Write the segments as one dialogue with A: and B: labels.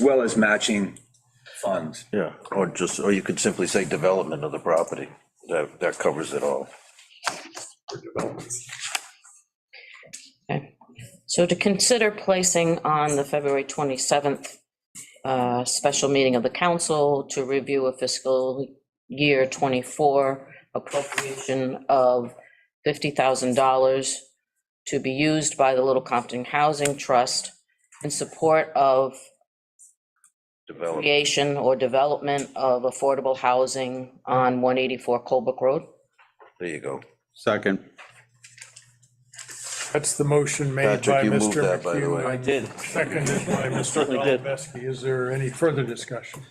A: well as matching funds.
B: Yeah, or just, or you could simply say development of the property. That, that covers it all.
C: Okay. So to consider placing on the February 27th uh, special meeting of the council to review a fiscal year 24 appropriation of $50,000 to be used by the Little Compton Housing Trust in support of
B: Development,
C: creation or development of affordable housing on 184 Colebrook Road.
B: there you go.
D: Second.
E: That's the motion made
B: Patrick,
E: by
B: you moved
E: Mr.
B: that, by the way.
E: McHugh.
F: I did.
E: Seconded by Mr.
F: Certainly did.
E: Goldbeski. Is there any further discussion?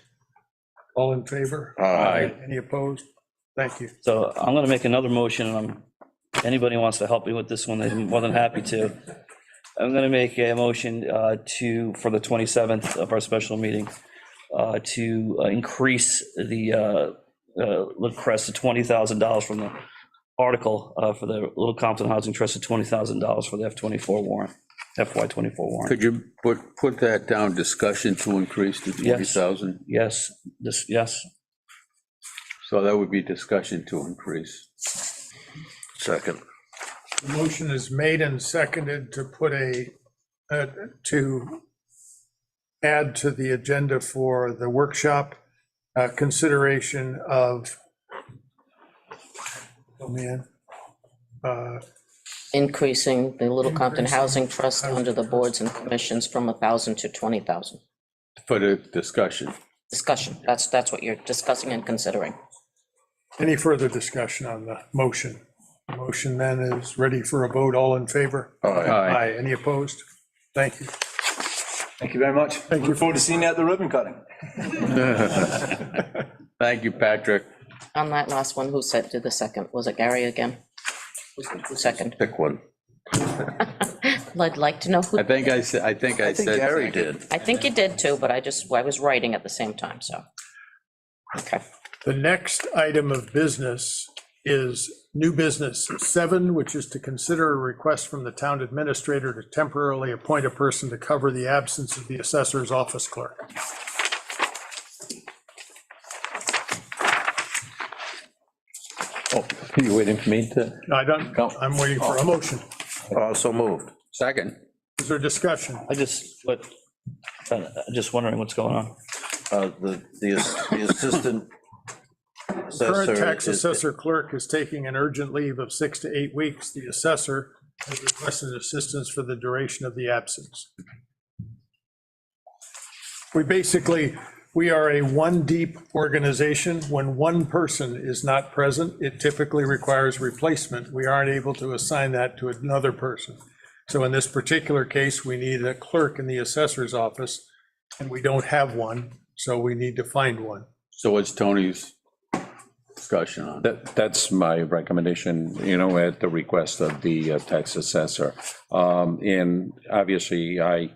E: All in favor?
B: Aye.
E: Any opposed? Thank you.
F: So I'm going to make another motion, and I'm, anybody wants to help me with this one, they're more than happy to. I'm going to make a motion uh, to, for the 27th of our special meeting, uh, to uh, increase the uh, uh, Little Crest to $20,000 from the article uh, for the Little Compton Housing Trust to $20,000 for the F-24 warrant, FY24 warrant.
D: Could you put, put that down, discussion to increase to
F: Yes.
D: 20,000?
F: Yes, this, yes.
D: So that would be discussion to increase.
B: Second.
E: The motion is made and seconded to put a, uh, to add to the agenda for the workshop, uh, consideration of, oh man, uh,
C: increasing the Little Compton
E: Increasing
C: Housing Trust
E: housing
C: under the
E: trust.
C: boards and commissions from 1,000 to 20,000.
D: For the discussion.
C: Discussion, that's, that's what you're discussing and considering.
E: Any further discussion on the motion? The Motion then is ready for a vote. All in favor?
B: Aye.
D: Aye.
E: Any opposed? Thank you.
A: Thank you very much. Thank you. Look forward to seeing you at the ribbon cutting.
D: Thank you, Patrick.
C: On that last one, who said, did the second? Was it Gary again? Who second?
B: Pick one.
C: I'd like to know who,
D: I think I said, I think I
B: I think
D: said.
B: Gary did.
C: I think you did too, but I just, I was writing at the same time, so. Okay,
E: The next item of business is new business seven, which is to consider a request from the town administrator to temporarily appoint a person to cover the absence of the assessor's office clerk.
D: Oh, You waiting for me to?
E: I don't, I'm waiting for a motion.
B: Also moved.
D: Second.
E: Is there discussion?
F: I just, what, I'm just wondering what's going on.
B: Uh, The, the ass- the assistant.
E: Current
B: assessor
E: tax
B: is-
E: assessor clerk is taking an urgent leave of six to eight weeks. The assessor has requested assistance for the duration of the absence. We basically, we are a one deep organization. When one person is not present, it typically requires replacement. We aren't able to assign that to another person. So in this particular case, we need a clerk in the assessor's office, and we don't have one, so we need to find one.
D: So what's Tony's discussion on? it?
G: That, that's my recommendation, you know, at the request of the uh, tax assessor. Um, And obviously, I,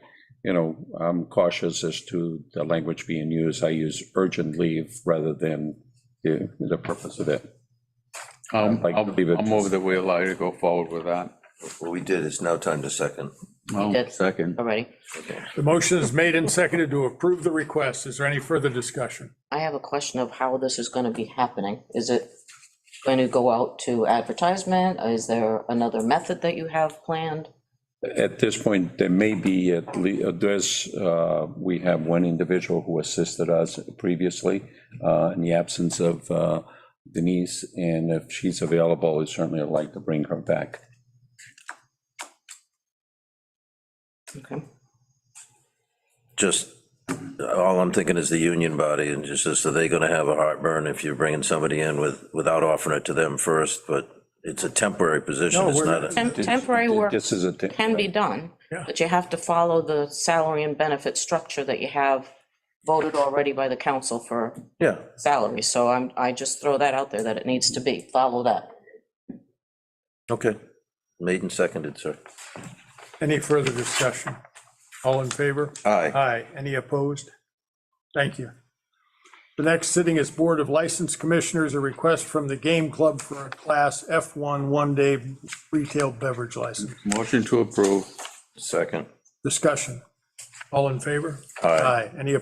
G: you know, I'm cautious as to the language being used. I use urgent leave rather than the, the purpose of it.
D: Um,
G: like to
D: I'll,
G: leave it-
D: I'll move that we allow you to go forward with that.
B: Well, we did, it's now time to second.
D: Oh,
C: did.
D: second.
C: already.
E: The motion is made and seconded to approve the request. Is there any further discussion?
C: I have a question of how this is going to be happening. Is it going to go out to advertisement? Is there another method that you have planned?
G: At this point, there may be at least, there's, uh, we have one individual who assisted us previously uh, in the absence of uh, Denise, and if she's available, I'd certainly like to bring her back.
C: Okay.
B: Just, all I'm thinking is the union body and just, is, are they going to have a heartburn if you're bringing somebody in with, without offering it to them first? But it's a temporary position,
E: No,
B: it's
E: we're
B: not. a-
C: Tem- Temporary work.
G: This is a.
C: can be done,
E: Yeah.
C: but you have to follow the salary and benefit structure that you have voted already by the council for
B: Yeah,
C: salary. So I'm, I just throw that out there that it needs to be, follow that.
B: okay. Made and seconded, sir.
E: Any further discussion? All in favor?
B: Aye.
E: Aye. Any opposed? Thank you. The next sitting is Board of License Commissioners, a request from the Game Club for a Class F1 one-day retail beverage license.
D: Motion to approve.
B: Second.
E: Discussion. All in favor?
B: Aye.
E: Aye. Any opposed?